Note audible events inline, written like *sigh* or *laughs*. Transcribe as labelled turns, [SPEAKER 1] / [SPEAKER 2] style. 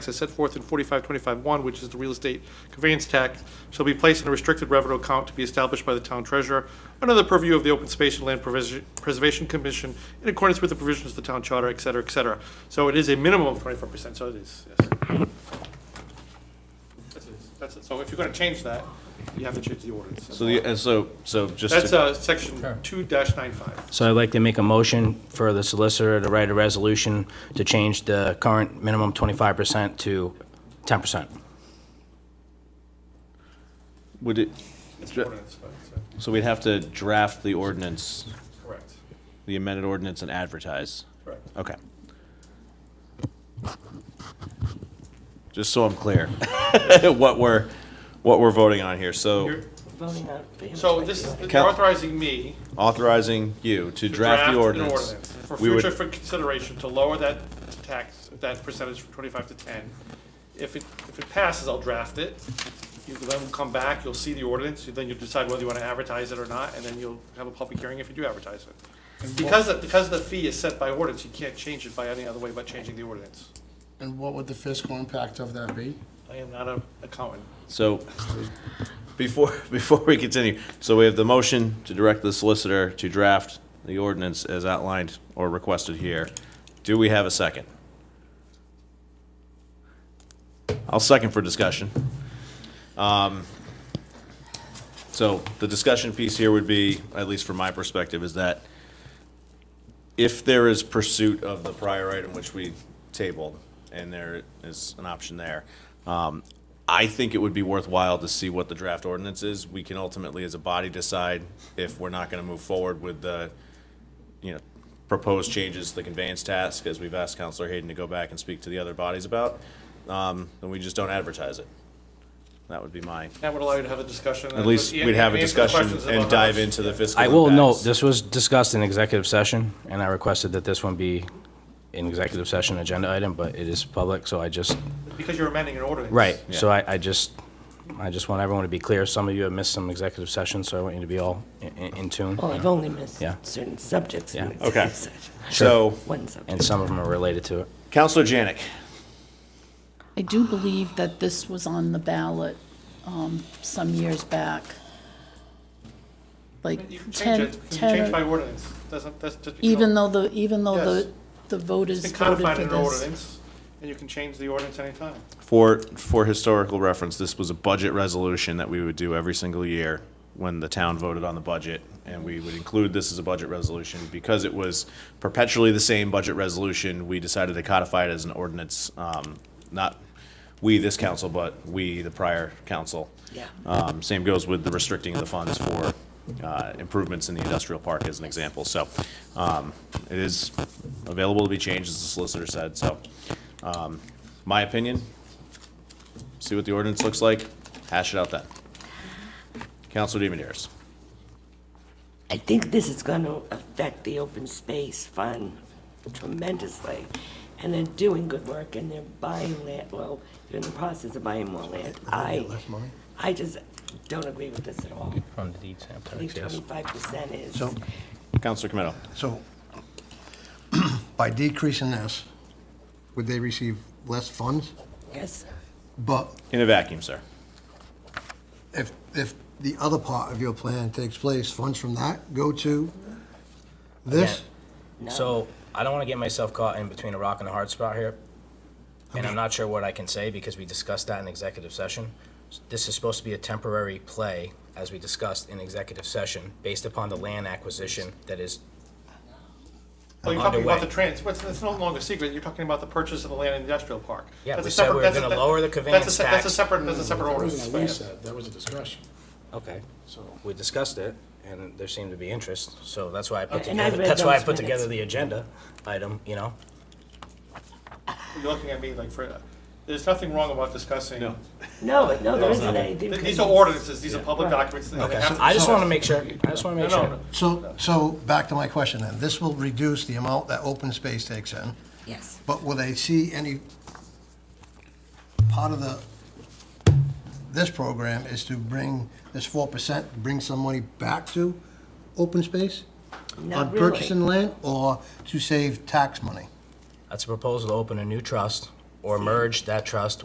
[SPEAKER 1] as set forth in 4525-1, which is the real estate conveyance tax, shall be placed in a restricted revenue account to be established by the town treasurer under the purview of the Open Space and Land Previs- Preservation Commission in accordance with the provisions of the town charter, et cetera, et cetera. So it is a minimum of 25%, so it is, yes. That's it, That's it. So if you're going to change that, you have to change the ordinance.
[SPEAKER 2] So the, and so, so just
[SPEAKER 1] That's
[SPEAKER 2] to,
[SPEAKER 1] uh, section 2-95.
[SPEAKER 3] So I'd like to make a motion for the solicitor to write a resolution to change the current minimum 25% to 10%.
[SPEAKER 2] would it,
[SPEAKER 1] It's
[SPEAKER 2] Dra-
[SPEAKER 1] ordinance, but, uh,
[SPEAKER 2] so we'd have to draft the ordinance,
[SPEAKER 1] Correct,
[SPEAKER 2] the amended ordinance and advertise?
[SPEAKER 1] correct.
[SPEAKER 2] Okay. Just so I'm clear, *laughs* what we're, what we're voting on here. So
[SPEAKER 1] You're- So this is
[SPEAKER 2] Cal-
[SPEAKER 1] authorizing me
[SPEAKER 2] authorizing you to
[SPEAKER 1] to draft
[SPEAKER 2] draft the
[SPEAKER 1] an
[SPEAKER 2] ordinance.
[SPEAKER 1] ordinance for
[SPEAKER 2] We would-
[SPEAKER 1] future for consideration to lower that tax, that percentage from twenty-five to ten. If it, if it passes, I'll draft it. You then will come back, you'll see the ordinance, you- then you'll decide whether you want to advertise it or not, and then you'll have a public hearing if you do advertise it. Because, the- because the fee is set by ordinance, you can't change it by any other way but changing the ordinance.
[SPEAKER 4] And what would the fiscal impact of that be?
[SPEAKER 1] I am not an accountant.
[SPEAKER 2] So before, *laughs* before we continue, so we have the motion to direct the solicitor to draft the ordinance as outlined or requested here. Do we have a second? I'll second for discussion. Um, So the discussion piece here would be, at least from my perspective, is that if there is pursuit of the prior item which we tabled, and there is an option there, um, I think it would be worthwhile to see what the draft ordinance is. We can ultimately, as a body, decide if we're not gonna move forward with the, you know, proposed changes to the conveyance task, as we've asked Counselor Hayden to go back and speak to the other bodies about, um, then we just don't advertise it. That would be my,
[SPEAKER 1] That would allow you to have a discussion.
[SPEAKER 2] at least we'd have a discussion and dive
[SPEAKER 1] into.
[SPEAKER 2] into the fiscal
[SPEAKER 3] I will note,
[SPEAKER 2] impacts.
[SPEAKER 3] this was discussed in executive session, and I requested that this one be an executive session agenda item, but it is public, so I just,
[SPEAKER 1] Because you're amending an ordinance.
[SPEAKER 3] right, so I, I just, I just want everyone to be clear. Some of you have missed some executive sessions, so I want you to be all in- in in tune.
[SPEAKER 5] Well, I've only missed
[SPEAKER 3] Yeah.
[SPEAKER 5] certain subjects in
[SPEAKER 3] Yeah.
[SPEAKER 5] executive
[SPEAKER 2] Okay.
[SPEAKER 5] session.
[SPEAKER 2] So,
[SPEAKER 5] One
[SPEAKER 3] And
[SPEAKER 5] subject.
[SPEAKER 3] some of them are related to it.
[SPEAKER 2] Counselor Janik,
[SPEAKER 6] I do believe that this was on the ballot um, some years back. Like
[SPEAKER 1] You can change
[SPEAKER 6] 10,
[SPEAKER 1] it, you can
[SPEAKER 6] 10
[SPEAKER 1] change by
[SPEAKER 6] or-
[SPEAKER 1] ordinance, doesn't, that's just. because-
[SPEAKER 6] even though the, even though
[SPEAKER 1] Yes.
[SPEAKER 6] the, the
[SPEAKER 1] It's
[SPEAKER 6] voters
[SPEAKER 1] been
[SPEAKER 6] voted
[SPEAKER 1] codified
[SPEAKER 6] for
[SPEAKER 1] in an
[SPEAKER 6] this.
[SPEAKER 1] ordinance, and you can change the ordinance anytime.
[SPEAKER 2] For, for historical reference, this was a budget resolution that we would do every single year when the town voted on the budget, and we would include this as a budget resolution. Because it was perpetually the same budget resolution, we decided to codify it as an ordinance, um, not we, this council, but we, the prior council.
[SPEAKER 5] Yeah.
[SPEAKER 2] Um, Same goes with the restricting of the funds for uh, improvements in the industrial park as an example. So um, it is available to be changed, as the solicitor said. So um, my opinion, see what the ordinance looks like, hash it out then. Counselor DiMeneres.
[SPEAKER 5] I think this is going to affect the open space fund tremendously. And they're doing good work and they're buying land, well, they're in the process of buying more land. I, I just don't agree with this at all.
[SPEAKER 3] From the deed
[SPEAKER 5] I think twenty-five percent is,
[SPEAKER 7] So,
[SPEAKER 2] Counselor Camino.
[SPEAKER 7] so *clears throat* by decreasing this, would they receive less funds?
[SPEAKER 5] yes,
[SPEAKER 7] But
[SPEAKER 2] In a vacuum, sir.
[SPEAKER 7] if, if the other part of your plan takes place, funds from that go to this?
[SPEAKER 3] So I don't want to get myself caught in between a rock and a hard spot here. And I'm not sure what I can say because we discussed that in executive session. This is supposed to be a temporary play, as we discussed in executive session, based upon the land acquisition that is,
[SPEAKER 1] Well, you're talking about the
[SPEAKER 3] Underway.
[SPEAKER 1] trans, well, it's it's no longer a secret, you're talking about the purchase of the land in industrial park.
[SPEAKER 3] Yeah,
[SPEAKER 1] That's
[SPEAKER 3] we
[SPEAKER 1] a
[SPEAKER 3] said we
[SPEAKER 1] separate-
[SPEAKER 3] were
[SPEAKER 1] that's a-
[SPEAKER 3] gonna
[SPEAKER 1] that-
[SPEAKER 3] lower the
[SPEAKER 1] that's a
[SPEAKER 3] conveyance
[SPEAKER 1] se- That's a
[SPEAKER 3] tax.
[SPEAKER 1] separate, that's a separate
[SPEAKER 4] That
[SPEAKER 1] ordinance.
[SPEAKER 4] wasn't what we
[SPEAKER 1] but yeah.
[SPEAKER 4] said, that was a discussion.
[SPEAKER 3] okay,
[SPEAKER 4] So,
[SPEAKER 3] we discussed it and there seemed to be interest. So that's why I put
[SPEAKER 5] And I
[SPEAKER 3] together,
[SPEAKER 5] read
[SPEAKER 3] that's why I
[SPEAKER 5] those
[SPEAKER 3] put together
[SPEAKER 5] minutes.
[SPEAKER 3] the agenda item, you know?
[SPEAKER 1] You're looking at me like, for- there's nothing wrong about discussing.
[SPEAKER 2] No.
[SPEAKER 5] no, no, there isn't
[SPEAKER 1] Th-
[SPEAKER 5] anything.
[SPEAKER 1] These are ordinances, these are public documents. and they
[SPEAKER 3] Okay,
[SPEAKER 1] have to
[SPEAKER 3] I just
[SPEAKER 1] be-
[SPEAKER 3] want to make sure, I just want
[SPEAKER 1] No,
[SPEAKER 3] to make
[SPEAKER 1] no,
[SPEAKER 3] sure.
[SPEAKER 1] no.
[SPEAKER 7] so, so back to my question then, this will reduce the amount that open space takes in,
[SPEAKER 5] Yes.
[SPEAKER 7] but will they see any part of the, this program is to bring this four percent, bring some money back to open space?
[SPEAKER 5] Not
[SPEAKER 7] on
[SPEAKER 5] really.
[SPEAKER 7] purchasing land or to save tax money?
[SPEAKER 3] That's a proposal to open a new trust or merge that trust